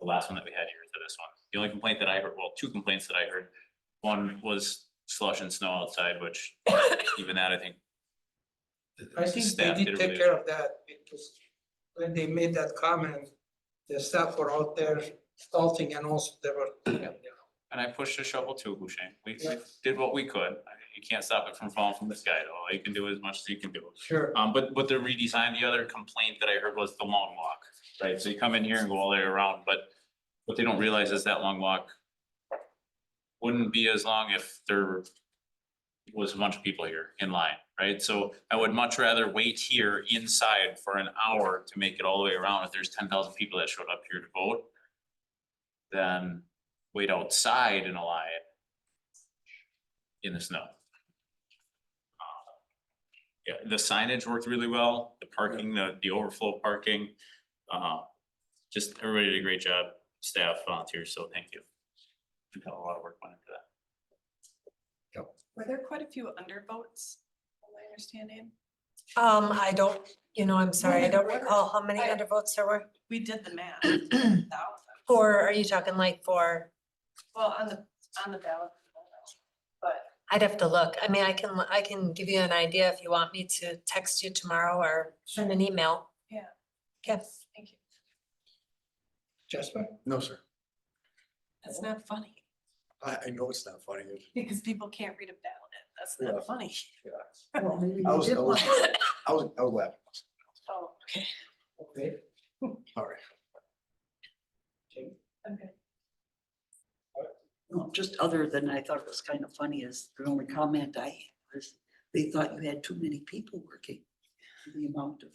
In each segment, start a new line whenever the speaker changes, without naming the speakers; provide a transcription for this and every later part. the last one that we had here to this one. The only complaint that I heard, well, two complaints that I heard. One was slush and snow outside, which even that, I think. the- the
I think
staff
they
did
did
a
take
really-
care of that, because when they made that comment, the staff were out there salting and also they were.
And I pushed a shovel too, Hushain. We we
Yeah.
did what we could. I- You can't stop it from falling from the sky. at All you can do is as much as you can do.
Sure.
Um, but, but the redesign, the other complaint that I heard was the long walk, right? So you come in here and go all the way around, but what they don't realize is that long walk wouldn't be as long if there was a bunch of people here in line, right? So I would much rather wait here inside for an hour to make it all the way around if there's ten thousand people that showed up here to vote than wait outside in a line in the snow. Yeah, the signage worked really well, the parking, the, the overflow parking, uh, just everybody did a great job, staff, volunteers, so thank you. We got a lot of work went into that.
Were there quite a few undervotes, from my understanding?
Um, I don't, you know, I'm sorry, I
Wonder-
don't
wonder-
recall how many
I-
undervotes there were.
We did the math. thousand.
Or are you talking like for,
Well, on the, on the ballot. But
I'd have to look. I mean, I can, I can give you an idea if you want me to text you tomorrow or send an email.
Yeah.
Yes,
thank you.
Jasper?
No, sir.
That's not funny
I, I know it's not funny. It-
because people can't read a ballot. That's
Yeah.
not funny.
Well, maybe you
I was,
did
I was,
one.
I was, I was laughing.
Oh, okay.
Okay,
All right.
okay.
Okay.
Well, just other than I thought it was kind of funny is the only comment I had was they thought you had too many people working. The amount of,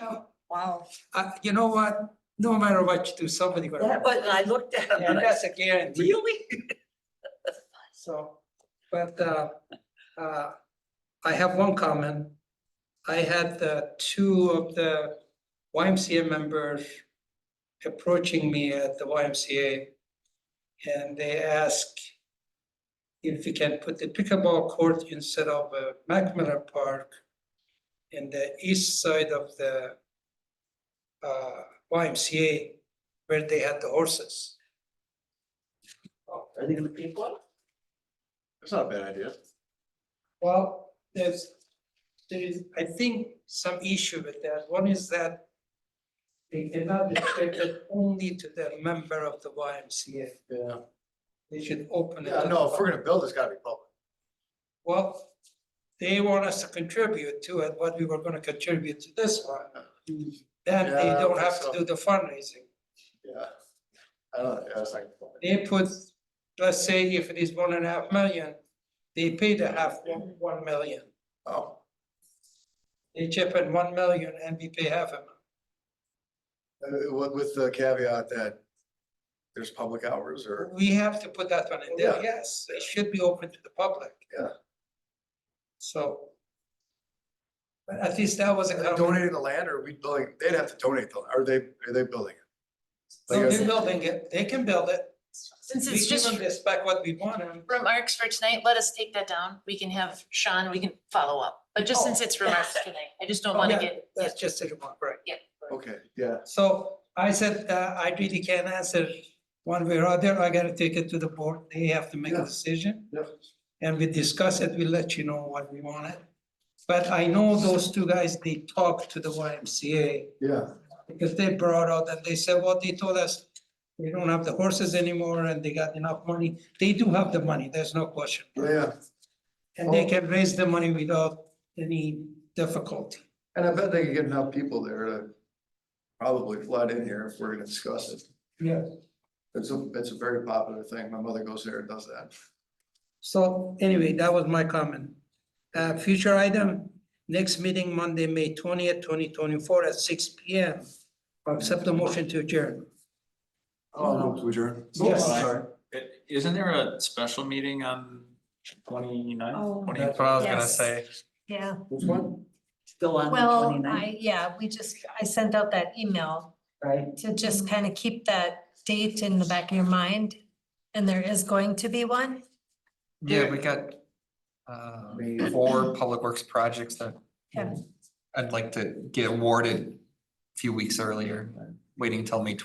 Oh, wow.
Uh, you know what? No matter what you do, somebody gonna.
Yeah, but I looked at them
And
and I
that's
said,
a guarantee,
really?
so, but, uh, uh, I have one comment. I had, uh, two of the YMCA members approaching me at the YMCA. And they ask if we can put the pickleball court instead of uh, Mac Miller Park in the east side of the uh, YMCA where they had the horses.
Are they gonna pay for it?
It's not a bad idea.
Well, there's, there is, I think, some issue with that. One is that they cannot restrict it only to the member of the YMCA.
Yeah.
They should open it.
Yeah,
up.
no, if we're gonna build, it's gotta be public.
Well, they want us to contribute to it, what we were gonna contribute to this one. Then they
Yeah, I
don't
think
have to
so.
do the fundraising.
Yeah. I don't, yeah, it's like.
They put, let's say if it is one and a half million, they pay the half, one one million.
Oh,
They chip in one million and we pay half a million.
uh, with, with the caveat that there's public hours or,
We have to put that one in there,
Yeah.
yes, it should be open to the public.
Yeah.
So. But at least that was a.
Are they
comment.
donating the land or we building, they'd have to donate the, are they, are they building it?
So
Like,
They're building it, they can build it.
Since
We
it's
give
just
them the spec what we want and.
remarks for tonight, let us take that down. We can have Sean, we can follow up. But just since it's remarks tonight, I just don't want
Oh. Yeah,
to get,
That's just a remark, right?
Okay, yeah.
So I said, uh, I really can't answer one way or other, I gotta take it to the board, they have to make a
Yeah.
decision.
Yeah.
And we discuss it, we let you know what we want it. But I know those two guys, they talked to the YMCA.
Yeah.
Because they brought out and they said, what they told us, we don't have the horses anymore and they got enough money. They do have the money, there's no question.
Yeah,
And they can raise the money without any difficulty.
and I bet they could get enough people there to probably flood in here if we're gonna discuss it.
Yeah.
It's a, it's a very popular thing. My mother goes there and does that.
So anyway, that was my comment. Uh, future item, next meeting Monday, May twentieth, twenty twenty-four at six P M. Accept the motion to adjourn.
Oh, no, to adjourn.
Yes.
Sorry.
It- Isn't there a special meeting on twenty
Oh.
ninth?
That's
what I
was gonna Yes. say. yeah.
Which one?
Still on the
Well,
29th,
I, yeah, we just, I sent out that email
right?
to just kind of keep that date in the back of your mind. And there is going to be one.
Yeah, we got uh, four public works projects that
Yeah.
I'd like to get awarded a few weeks earlier, waiting till May